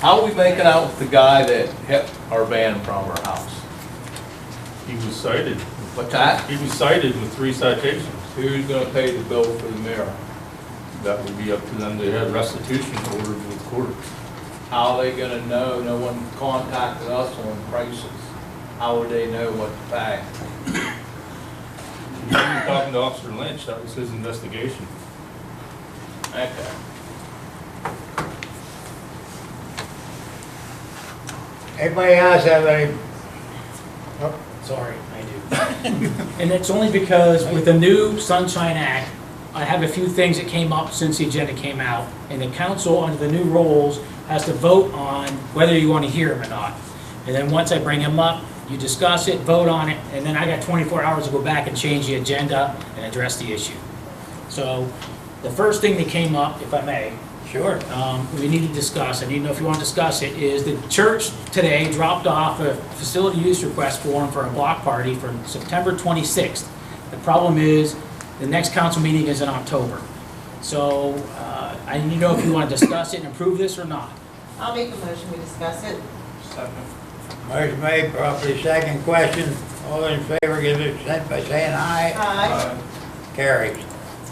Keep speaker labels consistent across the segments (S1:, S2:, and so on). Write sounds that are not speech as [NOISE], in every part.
S1: How are we making out with the guy that hit our van from our house?
S2: He was cited.
S1: What's that?
S2: He was cited with three citations.
S1: Who's gonna pay the bill for the mirror?
S2: That would be up to them. They had restitution ordered with court.
S1: How are they gonna know? No one contacted us on prices. How would they know what to pay?
S2: You were talking to Officer Lynch, that was his investigation.
S1: Okay.
S3: Anybody else have any,
S4: Sorry, I do. [LAUGHS] And it's only because with the new Sunshine Act, I have a few things that came up since the agenda came out, and the council, under the new rules, has to vote on whether you want to hear them or not. And then once I bring them up, you discuss it, vote on it, and then I got 24 hours to go back and change the agenda and address the issue. So the first thing that came up, if I may,
S3: sure,
S4: um, we need to discuss, I need to know if you want to discuss it, is the church today dropped off a facility use request form for a block party for September 26th. The problem is, the next council meeting is in October. So uh, I need to know if you want to discuss it and approve this or not.
S5: I'll make a motion, we discuss it.
S3: motion made, properly second question, all in favor, give their consent by saying aye,
S5: Aye.
S2: Uh,
S3: carries.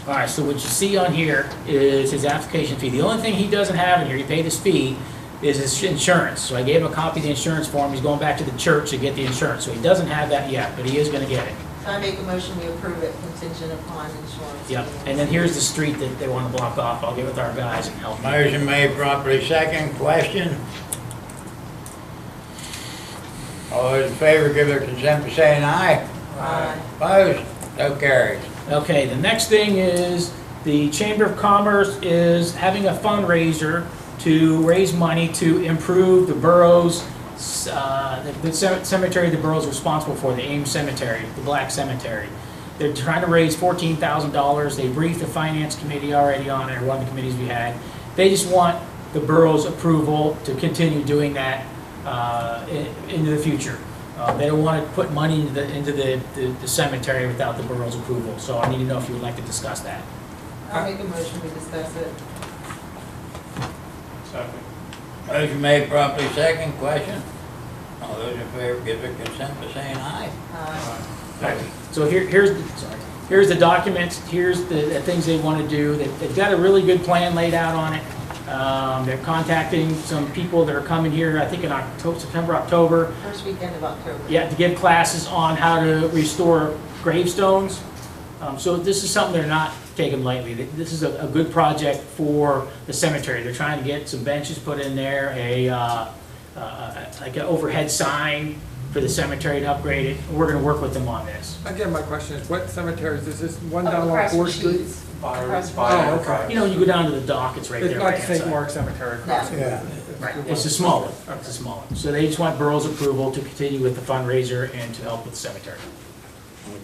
S4: All right, so what you see on here is his application fee. The only thing he doesn't have in here, he paid his fee, is his insurance. So I gave him a copy of the insurance form, he's going back to the church to get the insurance. So he doesn't have that yet, but he is going to get it.
S5: So I make a motion, we approve it contingent upon insurance.
S4: Yep, and then here's the street that they want to block off. I'll get with our guys and help. them.
S3: Motion made, properly second question. All in favor, give their consent by saying aye,
S5: Aye.
S3: opposed, so carries.
S4: Okay, the next thing is the Chamber of Commerce is having a fundraiser to raise money to improve the borough's, uh, the- the ce- cemetery the borough's responsible for, the Ames Cemetery, the Black Cemetery. They're trying to raise fourteen thousand dollars. They briefed the finance committee already on it, or one of the committees we had. They just want the borough's approval to continue doing that uh, i- into the future. Uh, They don't want to put money into the, into the- the the cemetery without the borough's approval, so I need to know if you would like to discuss that.
S5: I'll make a motion, we discuss it.
S3: Motion made, properly second question. All those in favor, give their consent by saying aye.
S5: Aye.
S4: So here, here's, the- sorry, here's the documents, here's the, the things they want to do, They- they've got a really good plan laid out on it. Um, They're contacting some people that are coming here, I think in October, September, October,
S5: First weekend of October.
S4: yeah, to give classes on how to restore gravestones. Um, So this is something they're not taking lightly. Th- This is a, a good project for the cemetery. They're trying to get some benches put in there, a, uh, uh, like an overhead sign for the cemetery to upgrade it. We're gonna work with them on this.
S6: Again, my question is, what cemeteries, is this one
S5: Up
S6: down along
S5: Oh, across the
S6: Fourth Street?
S5: cheese.
S1: Byron,
S6: Oh,
S1: Byron.
S6: okay.
S4: You know, you go down to the dock, it's right
S6: It's
S4: there.
S6: not
S4: right
S6: the
S4: hand
S6: St.
S4: side.
S6: Mark Cemetery across.
S5: No.
S3: Yeah.
S4: Right, it's a small one, it's a small one. So they just want borough's approval to continue with the fundraiser and to help with the cemetery.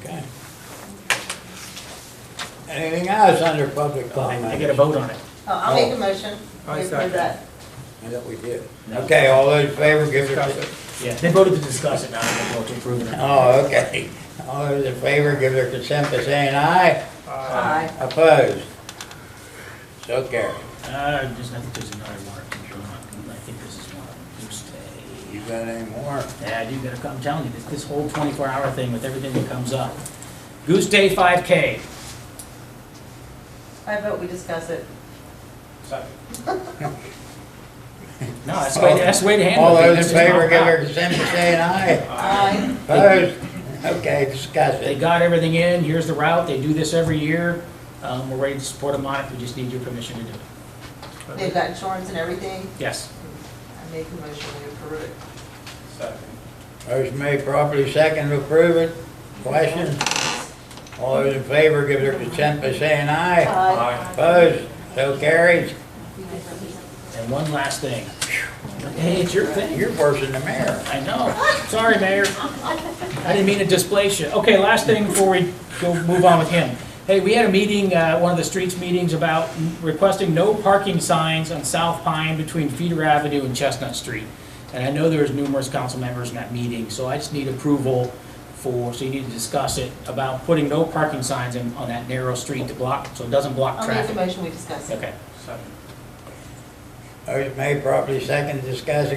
S3: Okay. Anything else under public comment?
S4: I get a vote on it.
S5: Oh, I'll make a motion.
S6: Aye,
S5: We approve
S6: second.
S5: that.
S3: I thought we did. Okay, all those in favor, give their,
S6: Discuss it.
S4: Yeah, they voted to discuss it, now they vote to approve it.
S3: oh, okay. All those in favor, give their consent by saying aye.
S5: Aye.
S3: Opposed? So carried.
S4: Uh, there's, I think there's another one. I think this is one of them. Tuesday.
S3: You got any more?
S4: Yeah, you gotta, I'm telling you, this, this whole twenty-four hour thing with everything that comes up. Goose Day five K.
S5: I vote we discuss it.
S4: No, that's the way, that's the way to handle it.
S3: All those
S4: It's
S3: in
S4: just
S3: favor, give
S4: not
S3: their
S4: proper.
S3: consent by saying
S4: [LAUGHS]
S3: aye.
S5: Aye.
S3: Opposed? Okay, discuss
S4: They
S3: it.
S4: got everything in, here's the route, they do this every year, um, we're ready to support them on it, we just need your permission to do it.
S5: They've got insurance and everything.
S4: Yes.
S5: I make a motion, we approve it.
S3: Motion made properly, second to approve it. Question? All those in favor, give their consent by saying aye. Opposed? So carried.
S4: And one last thing. Hey, it's your thing.
S3: You're worse than the mayor.
S4: I know. Sorry, Mayor. I didn't mean to displace you. Okay, last thing before we go move on with him. Hey, we had a meeting, uh, one of the streets meetings about requesting no parking signs on South Pine between Feeder Avenue and Chestnut Street. And I know there was numerous council members in that meeting, so I just need approval for, so you need to discuss it, about putting no parking signs in, on that narrow street to block, so it doesn't block
S5: I'll make a
S4: traffic.
S5: motion, we discuss it.
S4: Okay.
S3: Motion made properly second, discuss